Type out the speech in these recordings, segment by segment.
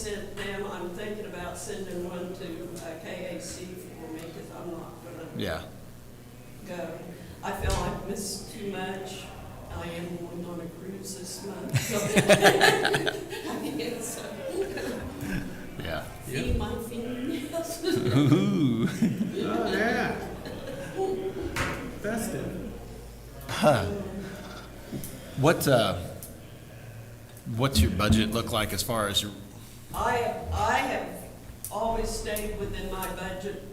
sent them, I'm thinking about sending one to uh, KAC for me, because I'm not gonna Yeah. go. I feel I've missed too much. I am going on a cruise this month, so. I think it's, uh, Yeah. See my fingernails. Ooh. Oh, yeah. Festive. What uh what's your budget look like as far as your I, I have always stayed within my budget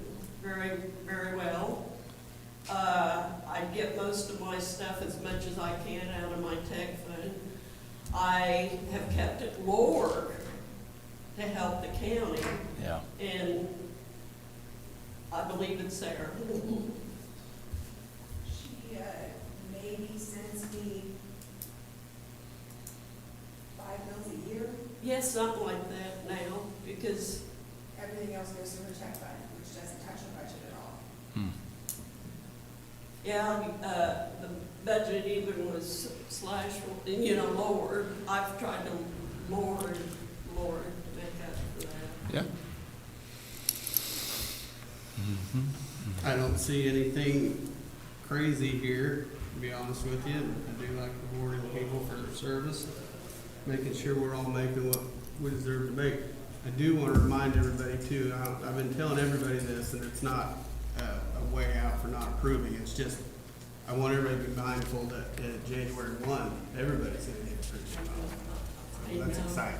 very, very well. Uh, I get most of my stuff as much as I can out of my tech fund. I have kept it lower to help the county, Yeah. and I believe it's there. She, uh, maybe sends me five bills a year, Yes, something like that now, because, everything else goes through her check fund, which doesn't touch her budget at all. Hmm. yeah, uh, the budget even was slashed, you know, lowered. I've tried to lower, it, lower it to make up for that. Yeah. I don't see anything crazy here, to be honest with you. I do like rewarding people for their service, making sure we're all making what we deserve to make. I do want to remind everybody too, I- I've been telling everybody this, and it's not uh, a way out for not approving. It's just, I want everybody to be mindful that uh, January one, everybody's going to get approved. I So That's know. exciting.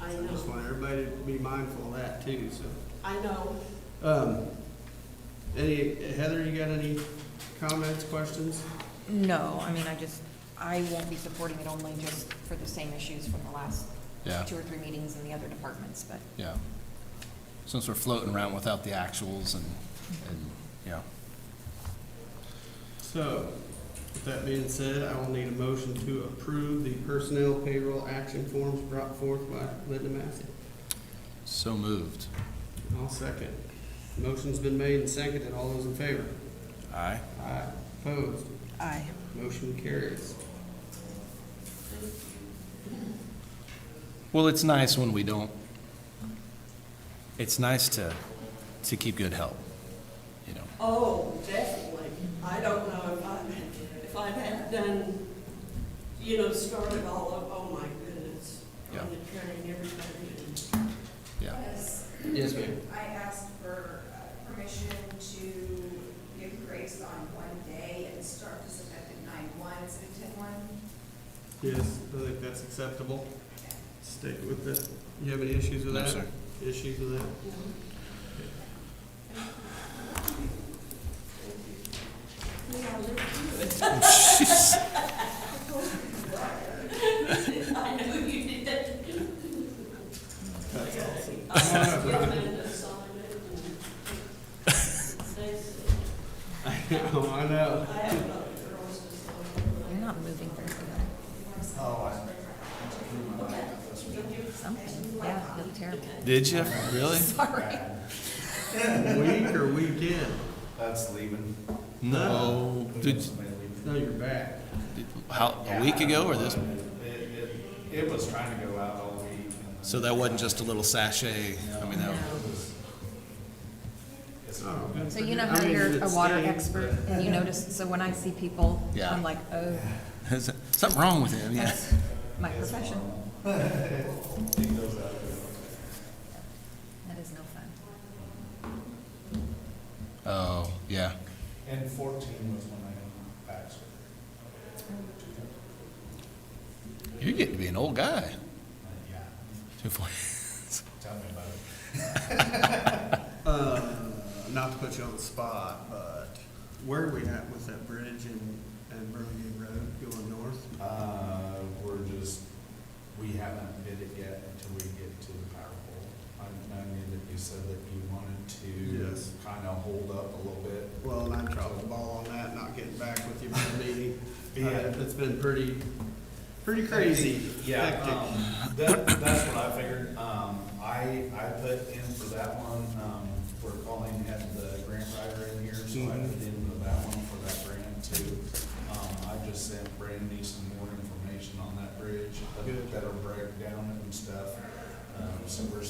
I So I just know. want everybody to be mindful of that too, so. I know. Um, any, Heather, you got any comments, questions? No, I mean, I just, I won't be supporting it only just for the same issues from the last Yeah. two or three meetings in the other departments, but Yeah. Since we're floating around without the actuals and and yeah. So, with that being said, I will need a motion to approve the personnel payroll action forms brought forth by Linda Massey. So moved. I'll second. Motion's been made and seconded. All those in favor? Aye. Aye. Opposed? I, Motion carries. Well, it's nice when we don't it's nice to to keep good help. You know. Oh, definitely. I don't know if I, if I'd have done, you know, started all of, oh my goodness. Yeah. On the train, everybody. Yeah. Yes, Yes, ma'am. I asked for uh, permission to give grace on one day and start this effective nine one, so ten one. Yes, I think that's acceptable. Stick with it. You have any issues with No, that? sir. Issues with that? I know you did that. That's awesome. I was given an assignment and Stacy, Oh, I know. I have another girl's assignment. you're not moving very good. Something, yeah, you look terrible. Did you? Really? Sorry. Week or weekend? That's leaving. No. Oh, Did, No, you're back. did- how a week ago or this? It, it, it was trying to go out all week. and So that wasn't just a little sachet. I mean that It's Oh, good So for you know I how mean, you're it a water stinks, expert, and you notice, so when I see people, Yeah. I'm like, oh, There's something wrong with him, yeah. that's my profession. That is no fun. Oh, yeah. but- And fourteen was when I got back. so- You're getting to be an old guy. Uh, Yeah, Two forty. tell me about it. but, Uh, not to put you on the spot, but where are we at with that bridge and, and Burlingame Road going north? Uh, we're just, we haven't bid it yet until we get to the power pole. I know that you said that you wanted to Yes. kind of hold up a little bit. Well, and I'm dropping the ball on that, not getting back with you by the meeting. Yeah. Uh, It's been pretty, pretty crazy. Yeah, hectic. um, that, that's what I figured. Um, I, I put in for that one, um, we're calling, had the grant writer in here, so I Mhm. put in for that one for that grant too. Um, I just sent Brandy some more information on that bridge, Good. better breakdown and stuff. Um, so we're